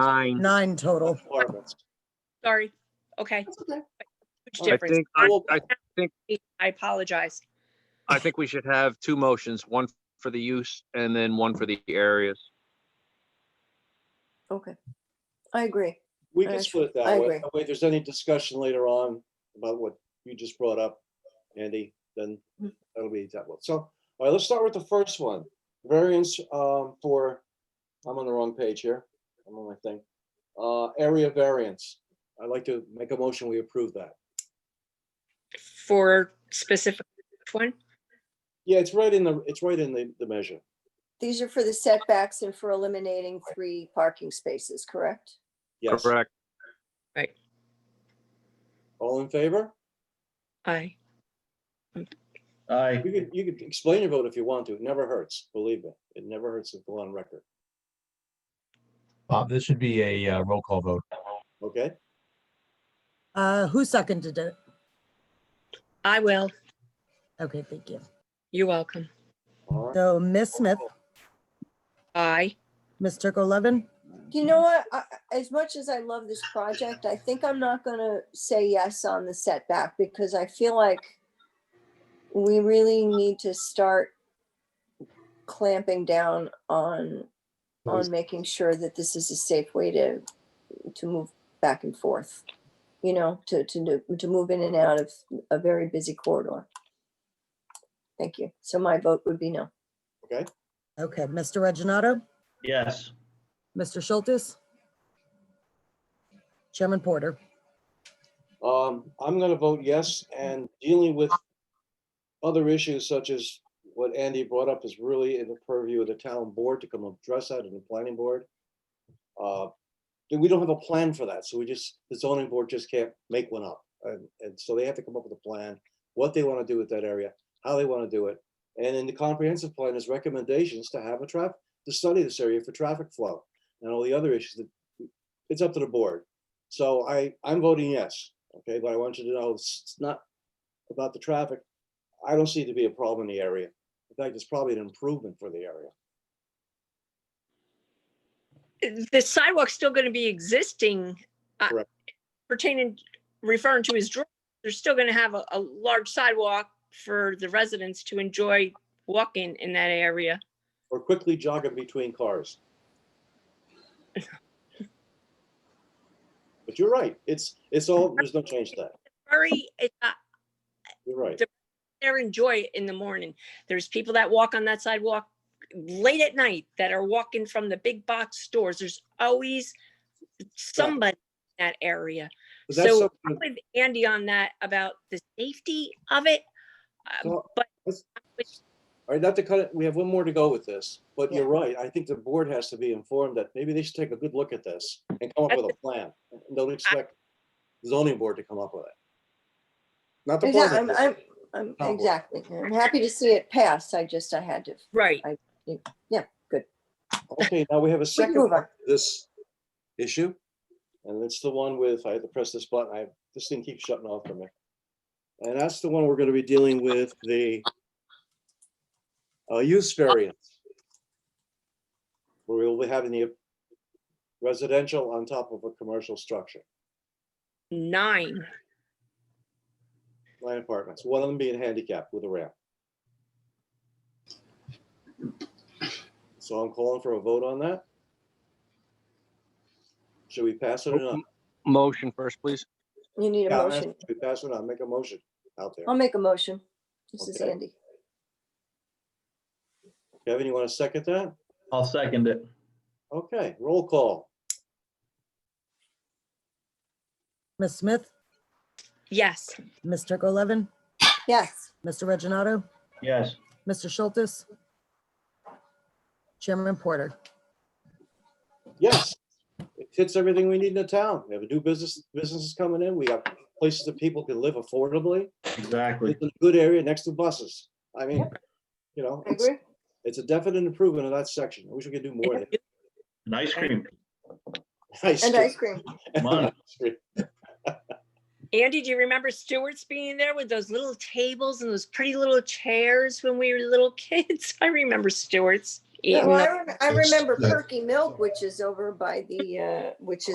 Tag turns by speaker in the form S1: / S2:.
S1: Nine.
S2: nine total.
S3: four of us.
S4: Sorry. Okay.
S5: That's okay.
S4: Huge
S1: I
S4: difference.
S1: think, I
S5: Well-
S1: I
S4: I apologize.
S1: I think we should have two motions, one for the use and then one for the areas.
S5: Okay. I agree.
S3: We can
S5: Alright,
S3: split it
S5: I
S3: that way.
S5: agree.
S3: That way, if there's any discussion later on about what you just brought up, Andy, then
S5: Mm.
S3: that'll be that one. So, all right, let's start with the first one. Variance um, for, I'm on the wrong page here. I'm on my thing. Uh, Area variance. I'd like to make a motion, we approve that.
S4: For specific which one?
S3: Yeah, it's right in the, it's right in the, the measure.
S5: These are for the setbacks and for eliminating three parking spaces, correct?
S3: Yes.
S1: Correct.
S3: All in favor?
S4: I,
S6: Aye.
S3: You could, you could explain your vote if you want to. It never hurts, believe me. It never hurts to go on record,
S7: Bob, this should be a uh, roll call vote.
S3: okay?
S2: Uh, who seconded it?
S4: I will.
S2: Okay, thank you.
S4: You're welcome.
S3: All right.
S2: So Ms. Smith,
S4: I,
S2: Ms. Levin,
S5: You know what? I- I- As much as I love this project, I think I'm not gonna say yes on the setback because I feel like we really need to start clamping down on, on making sure that this is a safe way to, to move back and forth. You know, to, to, do- to move in and out of a very busy corridor. Thank you. So my vote would be no.
S2: Okay, Mr. Reginato,
S6: Yes.
S2: Mr. Schultes, Chairman Porter.
S3: Um, I'm gonna vote yes, and dealing with other issues such as what Andy brought up is really in the purview of the town board to come address that in the planning board. Uh, We don't have a plan for that, so we just, the zoning board just can't make one up. And, and so they have to come up with a plan, what they wanna do with that area, how they wanna do it. And in the comprehensive plan is recommendations to have a traffic, to study this area for traffic flow and all the other issues that, it's up to the board. So I, I'm voting yes, okay, but I want you to know, it's it's not about the traffic. I don't see it to be a problem in the area. In fact, it's probably an improvement for the area.
S4: the sidewalk's still going to be existing uh,
S3: Correct.
S4: pertaining, referring to his drawing. They're still going to have a, a large sidewalk for the residents to enjoy walking in that area.
S3: Or quickly jogging between cars. But you're right, it's, it's all, there's no change to that.
S4: Very, it, uh,
S3: You're right.
S4: there enjoy it in the morning. There's people that walk on that sidewalk late at night that are walking from the big box stores. There's always somebody in that area.
S3: But that's
S4: So-
S3: something-
S4: With Andy on that about the safety of it. uh,
S3: Well,
S4: But
S3: All right, not to cut it, we have one more to go with this, but
S5: Yeah.
S3: you're right. I think the board has to be informed that maybe they should take a good look at this and come up with a plan. And Don't expect the zoning board to come up with it. Not the
S5: Yeah, I'm,
S3: board.
S5: I'm, I'm,
S3: Oh, boy.
S5: exactly. I'm happy to see it pass. I just, I had to.
S4: right,
S3: Okay, now we have a
S5: We can
S3: second
S5: move
S3: part
S5: on.
S3: to this issue. And it's the one with, I had to press this button, I, this thing keeps shutting off for me. And that's the one we're gonna be dealing with, the uh, use variance. Where we will be having the residential on top of a commercial structure,
S4: nine.
S3: nine apartments, one of them being handicapped with a ramp. So I'm calling for a vote on that. Should we pass it or not?
S1: Motion first, please.
S5: You need a
S3: Yeah, I'm
S5: motion. Um.
S3: asking, We pass it on, make a motion out there.
S5: I'll make a motion. This is
S3: Okay.
S5: Andy.
S3: Kevin, you want to second that?
S6: I'll second it.
S3: Okay, roll call.
S2: Ms. Smith,
S4: Yes.
S2: Ms. Levin,
S5: Yes,
S2: Mr. Reginato,
S6: Yes.
S2: Mr. Schultes, Chairman Porter.
S3: Yes. It fits everything we need in a town. We have a new business, businesses coming in. We got places that people can live affordably.
S6: Exactly.
S3: It's a good area next to buses. I mean, you know,
S5: I
S3: it's,
S5: agree.
S3: it's a definite improvement in that section. I wish we could do more. there.
S6: And ice cream.
S3: Ice
S5: And
S3: cream.
S5: ice cream.
S6: Come on.
S3: Ice cream.
S4: Andy, do you remember Stewart's being there with those little tables and those pretty little chairs when we were little kids? I remember Stewart's. eating
S5: Well,
S4: the-
S5: I rem- I
S8: That's-
S5: remember
S8: that-
S5: Perky Milk, which is over by the, uh, which is